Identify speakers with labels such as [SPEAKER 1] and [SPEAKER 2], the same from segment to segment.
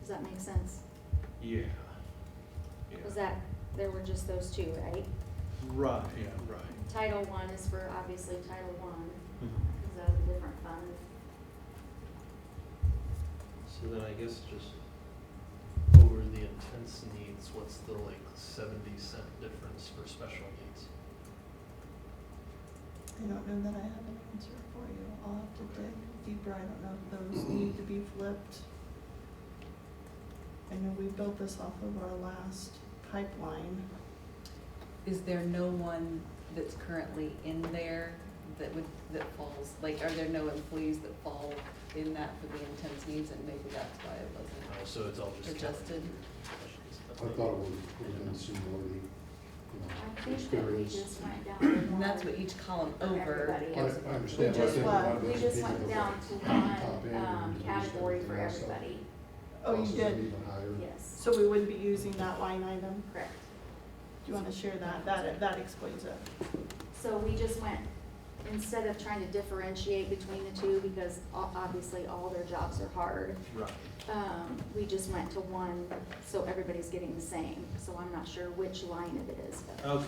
[SPEAKER 1] Does that make sense?
[SPEAKER 2] Yeah. Yeah.
[SPEAKER 1] Was that, there were just those two, right?
[SPEAKER 2] Right, yeah, right.
[SPEAKER 1] Title one is for obviously Title one,
[SPEAKER 2] Mhm.
[SPEAKER 1] because that was a different fund.
[SPEAKER 3] So then I guess just over the intense needs, what's the like seventy cent difference for special needs?
[SPEAKER 4] I don't know that I have an answer for you. I'll have to
[SPEAKER 3] Okay.
[SPEAKER 4] dig deeper. I don't know if those need to be flipped. I know we built this off of our last pipeline.
[SPEAKER 5] Is there no one that's currently in there that would, that falls, like, are there no employees that fall in that for the intense needs and maybe that's why it
[SPEAKER 3] Oh,
[SPEAKER 5] wasn't?
[SPEAKER 3] So it's all just.
[SPEAKER 5] Adjusted.
[SPEAKER 6] I thought it was within seniority,
[SPEAKER 1] I
[SPEAKER 6] you know,
[SPEAKER 1] think that we
[SPEAKER 6] experience.
[SPEAKER 1] just went down to one.
[SPEAKER 5] And that's what each column
[SPEAKER 1] For
[SPEAKER 5] over
[SPEAKER 1] everybody.
[SPEAKER 6] I,
[SPEAKER 5] is.
[SPEAKER 6] I understand, but I
[SPEAKER 4] just
[SPEAKER 6] think a lot of
[SPEAKER 1] We
[SPEAKER 6] those
[SPEAKER 1] just
[SPEAKER 6] people
[SPEAKER 1] went
[SPEAKER 6] that
[SPEAKER 1] down
[SPEAKER 6] were
[SPEAKER 1] to
[SPEAKER 6] top
[SPEAKER 1] one,
[SPEAKER 6] end
[SPEAKER 1] um,
[SPEAKER 6] and just
[SPEAKER 1] category for
[SPEAKER 6] everything else, so
[SPEAKER 1] everybody,
[SPEAKER 4] Oh, you
[SPEAKER 6] costs are
[SPEAKER 4] did.
[SPEAKER 6] even higher.
[SPEAKER 1] yes,
[SPEAKER 4] So we would be using that line item.
[SPEAKER 1] correct.
[SPEAKER 4] Do you want to share that? That, that explains it.
[SPEAKER 1] So we just went, instead of trying to differentiate between the two, because o- obviously all their jobs are hard,
[SPEAKER 2] Right.
[SPEAKER 1] um, we just went to one, so everybody's getting the same. So I'm not sure which line of it is, but
[SPEAKER 2] Okay,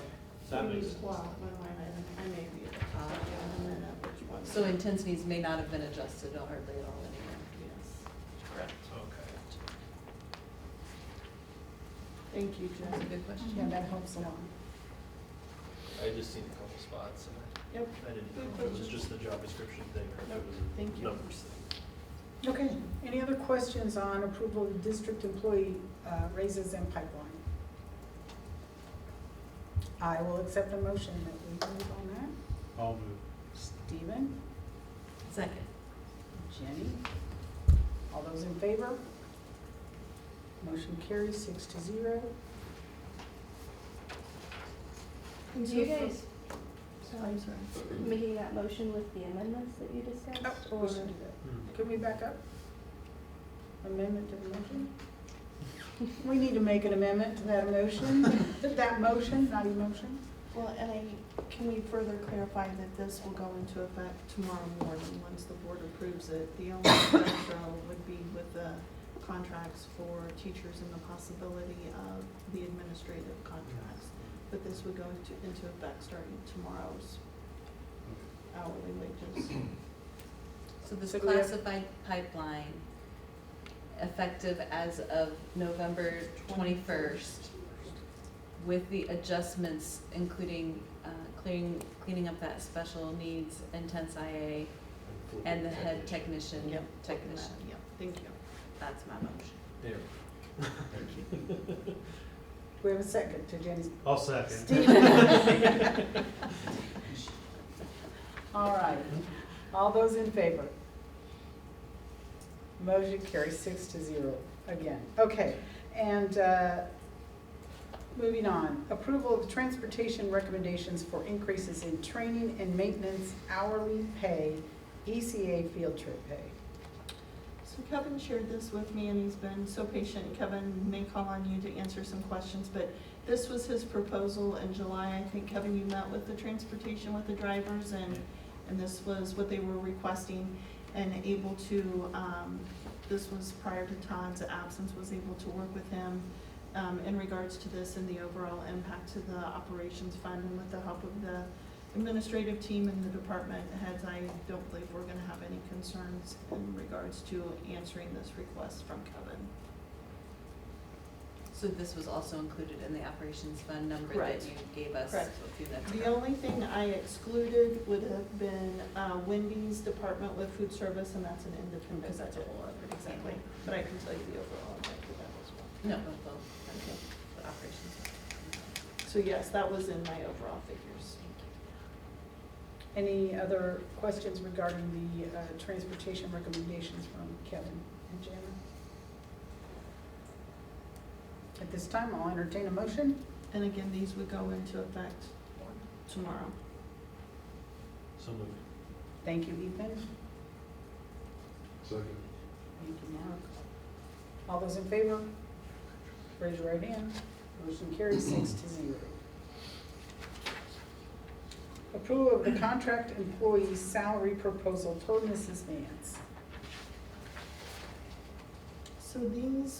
[SPEAKER 2] that
[SPEAKER 4] We
[SPEAKER 2] makes
[SPEAKER 4] used-
[SPEAKER 2] sense.
[SPEAKER 4] Well, my line item, I may be at the top, yeah, and then at which one.
[SPEAKER 5] So intense needs may not have been adjusted hardly at all anyway.
[SPEAKER 4] Yes.
[SPEAKER 3] Correct. Okay.
[SPEAKER 4] Thank you,
[SPEAKER 5] That's a
[SPEAKER 4] Jen.
[SPEAKER 5] good question.
[SPEAKER 4] Yeah,
[SPEAKER 5] that helps a lot.
[SPEAKER 3] I just seen a couple spots and
[SPEAKER 4] Yep.
[SPEAKER 3] I didn't know if it was just the job description thing or if
[SPEAKER 4] Nope,
[SPEAKER 3] it was
[SPEAKER 4] thank
[SPEAKER 3] a
[SPEAKER 4] you.
[SPEAKER 3] numbers thing.
[SPEAKER 7] Okay, any other questions on approval of district employee uh, raises and pipeline? I will accept a motion that we move on that.
[SPEAKER 2] I'll move.
[SPEAKER 7] Stephen,
[SPEAKER 5] Second.
[SPEAKER 7] Jenny, all those in favor? Motion carries six to zero.
[SPEAKER 4] And
[SPEAKER 8] Do you
[SPEAKER 4] so for-
[SPEAKER 8] guys
[SPEAKER 4] Oh, I'm sorry.
[SPEAKER 8] making that motion with the amendments that you discussed?
[SPEAKER 7] Oh,
[SPEAKER 8] or-
[SPEAKER 7] we should do
[SPEAKER 2] Hmm.
[SPEAKER 7] that. Can we back up? Amendment to the motion? We need to make an amendment to that motion, that motion, not emotion.
[SPEAKER 4] Well, and I, can we further clarify that this will go into effect tomorrow morning, once the board approves it? The only retro would be with the contracts for teachers and the possibility of the administrative contracts. But this would go into, into effect starting tomorrow's hourly wages.
[SPEAKER 5] So this
[SPEAKER 7] So do we have-
[SPEAKER 5] classified pipeline, effective as of November twenty-first, with the adjustments, including uh, clearing, cleaning up that special needs intense IA
[SPEAKER 3] flip
[SPEAKER 5] and
[SPEAKER 3] it
[SPEAKER 5] the head
[SPEAKER 3] technician.
[SPEAKER 5] technician,
[SPEAKER 4] Yep.
[SPEAKER 5] technician.
[SPEAKER 4] Yeah, thank you.
[SPEAKER 5] That's my motion.
[SPEAKER 3] There.
[SPEAKER 7] Do we have a second to Jenny's
[SPEAKER 2] I'll second.
[SPEAKER 7] Stephen. All right, all those in favor? Motion carries six to zero again. Okay, and uh, moving on, approval of transportation recommendations for increases in training and maintenance hourly pay, ECA field trip pay.
[SPEAKER 4] So Kevin shared this with me and he's been so patient. Kevin may call on you to answer some questions, but this was his proposal in July. I think Kevin, you met with the transportation with the drivers and, and this was what they were requesting and able to, um, this was prior to Todd's absence, was able to work with him um, in regards to this and the overall impact to the operations fund and with the help of the administrative team and the department heads, I don't believe we're gonna have any concerns in regards to answering this request from Kevin.
[SPEAKER 5] So this was also included in the operations fund number that
[SPEAKER 4] Correct.
[SPEAKER 5] you gave us
[SPEAKER 4] Correct.
[SPEAKER 5] through that.
[SPEAKER 4] The only thing I excluded would have been uh, Wendy's department with food service, and that's an independent
[SPEAKER 5] Because that's a
[SPEAKER 4] budget.
[SPEAKER 5] whole other thing.
[SPEAKER 4] Exactly, but I can tell you the overall impact of that as well.
[SPEAKER 5] No, both, both, okay, but operations.
[SPEAKER 4] So yes, that was in my overall figures.
[SPEAKER 7] Any other questions regarding the uh, transportation recommendations from Kevin and Jana? At this time, I'll entertain a motion.
[SPEAKER 4] And again, these would go into effect tomorrow.
[SPEAKER 3] So moved.
[SPEAKER 7] Thank you, Ethan.
[SPEAKER 6] Second.
[SPEAKER 7] Thank you, Mark. All those in favor? Raise your right hand. Motion carries six to zero. Approval of the contract employee salary proposal per Mrs. Vance.
[SPEAKER 4] So these